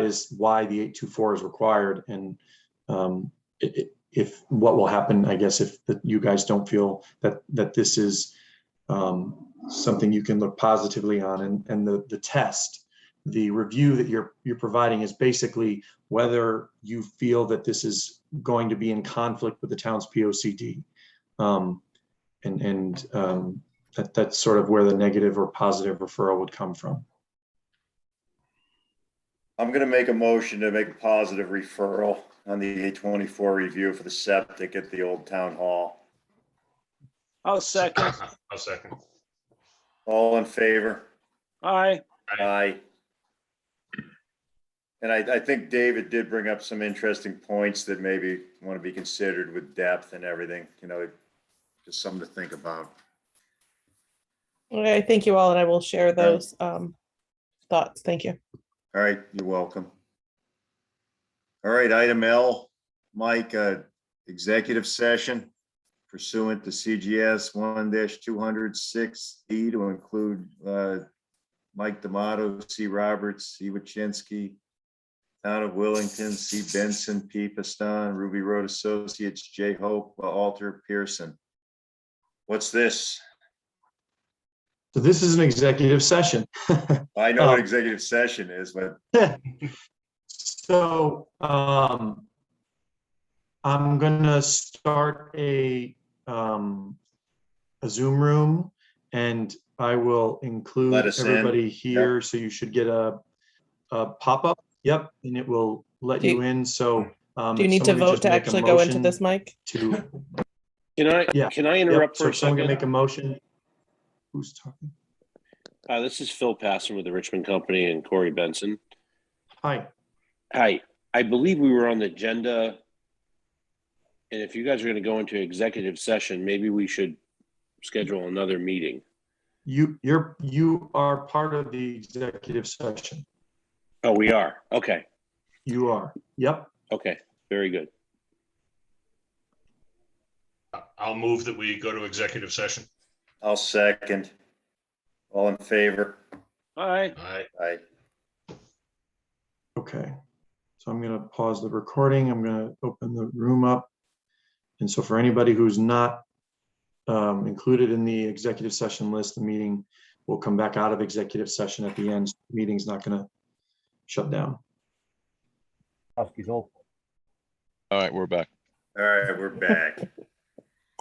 is why the 824 is required and um, i- i- if, what will happen, I guess, if that you guys don't feel that, that this is um, something you can look positively on and, and the, the test, the review that you're, you're providing is basically whether you feel that this is going to be in conflict with the town's P O C D. Um, and, and um, that, that's sort of where the negative or positive referral would come from. I'm gonna make a motion to make a positive referral on the eight twenty-four review for the septic at the old town hall. I'll second. I'll second. All in favor? Aye. Aye. And I, I think David did bring up some interesting points that maybe want to be considered with depth and everything, you know, just something to think about. Okay, thank you all, and I will share those um, thoughts. Thank you. All right, you're welcome. All right, item L, Mike, uh, executive session pursuant to CGS one two hundred six E to include, uh, Mike D'Amato, C. Roberts, C. Wachinski, Town of Willington, C. Benson, P. Piston, Ruby Road Associates, J. Hope, Alter Pearson. What's this? So this is an executive session. I know what Oh. executive session is, but So, um, I'm gonna start a, um, a Zoom room and I will include Let us in. everybody here. So you should get a, a pop-up. Yep, and it will let Do you- you in. So, um, Do you need to somebody vote just to make a actually go into motion this, Mike? To Can I, Yeah. can I Yep, interrupt so for a if someone can make a second? motion. Who's talking? Uh, This is Phil Passon with the Richmond Company and Corey Benson. Hi. Hi, I believe we were on the agenda. And if you guys are going to go into executive session, maybe we should schedule another meeting. You, you're, you are part of the executive session. Oh, we are. Okay, You are. Yep. okay, very good. I'll move that we go to executive session. I'll second. All in favor? Aye. Aye. Aye. Okay. So I'm going to pause the recording. I'm going to open the room up. And so for anybody who's not um, included in the executive session list, the meeting will come back out of executive session at the end. Meeting's not going to shut down. All right, we're back. All right, we're back.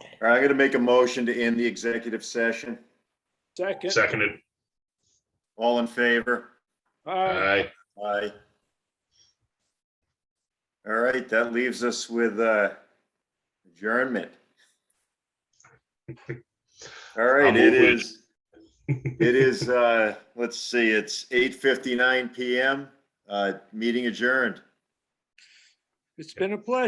All right, I'm gonna make a motion to end the executive session. Second. Seconded. All in favor? Aye. Aye. All right, that leaves us with uh, adjournment. All right, I'm it over it. is, it is, uh, let's see, it's eight fifty-nine PM, uh, meeting adjourned. It's been a pleasure.